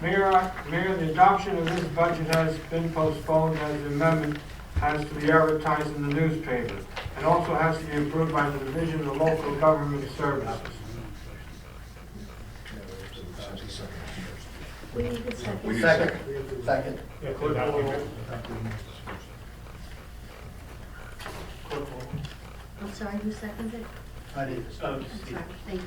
Mayor, I- Mayor, the adoption of this budget has been postponed as the amendment has to be advertised in the newspaper and also has to be approved by the Division of Local Government Services. We need a second. Second. Second. I'm sorry, who seconded it? I did. I'm sorry, thank you.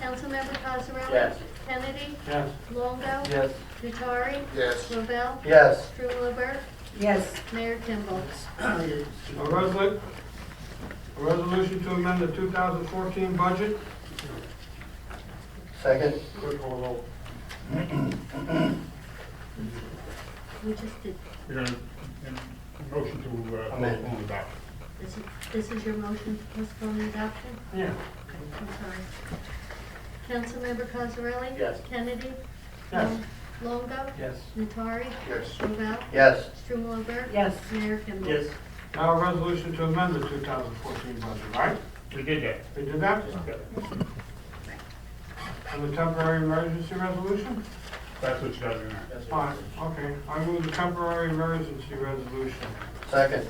Councilmember Cosarelli? Yes. Kennedy? Yes. Longo? Yes. Nutari? Yes. Lavelle? Yes. Strumelberg? yes, Mayor Kimball? A resol, a resolution to amend the 2014 budget? Second. Clerk call roll. We just did, We're gonna, and motion to uh, Amend. postpone adoption. this is, this is your motion to postpone the adoption? Yeah. Okay, I'm sorry. Councilmember Cosarelli? Yes. Kennedy? Yes. Longo? Yes. Nutari? Yes. Lavelle? Yes. Strumelberg? yes. Mayor Kimball? Now a resolution to amend the 2014 budget, right? We did that. We did that? And the temporary emergency resolution? That's what you got in there. Fine, okay. I move the temporary emergency resolution. Second.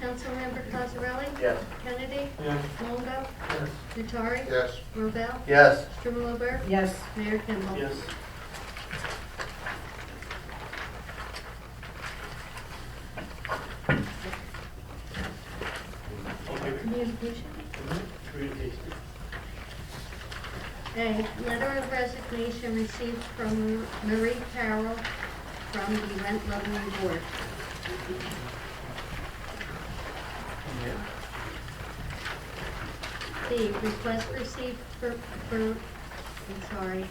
Councilmember Cosarelli? Yes. Kennedy? Yes. Longo? Yes. Nutari? Yes. Robel? Yes. Strumalober? Yes. Mayor Kimball? Communication? A letter of resignation received from Marie Carroll from the Rent Leveling Board. B, request received for, for, I'm sorry,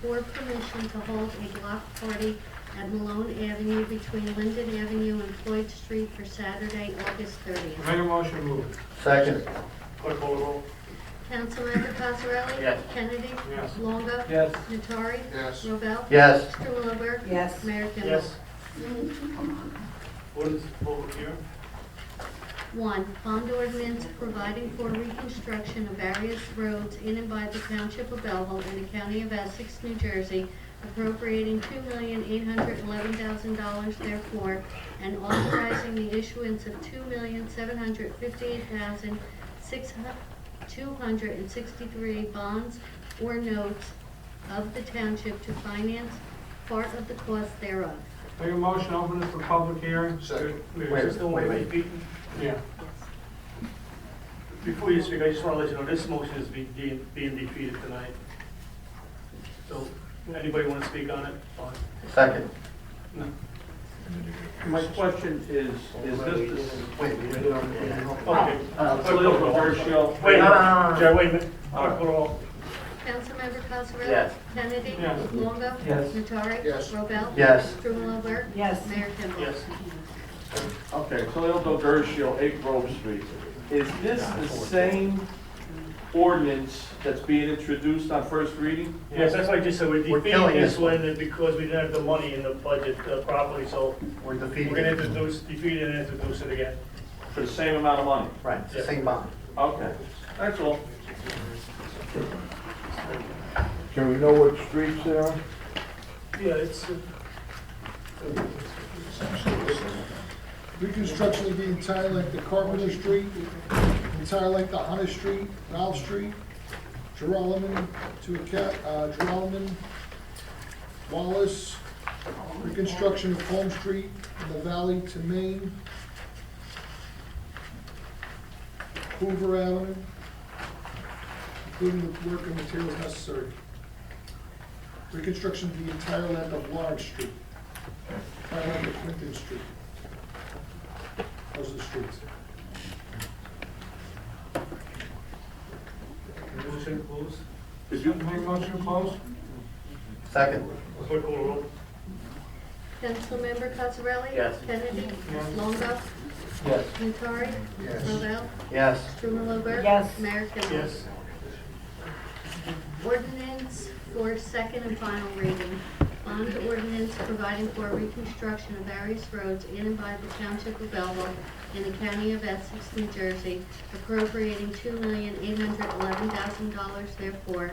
for permission to hold a block party at Malone Avenue between Linden Avenue and Floyd Street for Saturday, August thirtieth. Make a motion, move it. Second. Clerk call roll. Councilmember Cosarelli? Yes. Kennedy? Yes. Longo? Yes. Nattari? Yes. Robel? Yes. Strumalober? Yes. Mayor Kimball? Ordinance public hearing? One, bond ordinance providing for reconstruction of various roads in and by the Township of Belleville in the County of Essex, New Jersey, appropriating two million eight hundred eleven thousand dollars therefore, and authorizing the issuance of two million seven hundred fifty-eight thousand six two hundred and sixty-three bonds or notes of the township to finance part of the cost thereof. Make a motion, open it for public hearing? Second. Wait, Wait, just- wait, wait, be- Yeah. Before you speak, I just want to let you know, this motion is be- being being defeated tonight. So, anybody want to speak on it? Fine. Second. No. My question is, is this, Uh, Okay. the political ratio? Wait, No, no, no, no. Jerry, wait a minute. Clerk, roll. Councilmember Cosarelli? Yes. Kennedy? Yes. Longo? Yes. Nattari? Yes. Robel? Yes. Strumalober? Yes. Mayor Kimball? Yes. Okay, Toledo Dershio, 8 Grove Street. Is this the same ordinance that's being introduced on first reading? Yes, that's why I just said we're We're defeating killing this this one. one because we didn't have the money in the budget uh, properly, so We're we're going to defeated. introduce, defeat it and introduce it again. For the same amount of money? Right, it's the same bond. Okay, that's all. Can we know what streets they are? Yeah, it's, uh, Reconstruction of the entire length of Carpenter Street, entire length of Hunter Street, Ralph Street, Geralman to, Aca- uh, Geralman, Wallace, reconstruction of Home Street, in the valley to Maine, Hoover Avenue, including the work and materials necessary. Reconstruction of the entire length of Lawrence Street, entire length of Clinton Street. Those are the streets. motion closed. Did you, Make a motion, close? Second. Clerk, call the roll. Councilmember Cosarelli? Yes. Kennedy? Yes. Longo? Yes. Nattari? Yes. Robel? Yes. Strumalober? Yes. Mayor Kimball? Yes. Ordinance for second and final reading. Bond ordinance providing for reconstruction of various roads in and by the Township of Belleville in the County of Essex, New Jersey, appropriating two million eight hundred eleven thousand dollars therefore,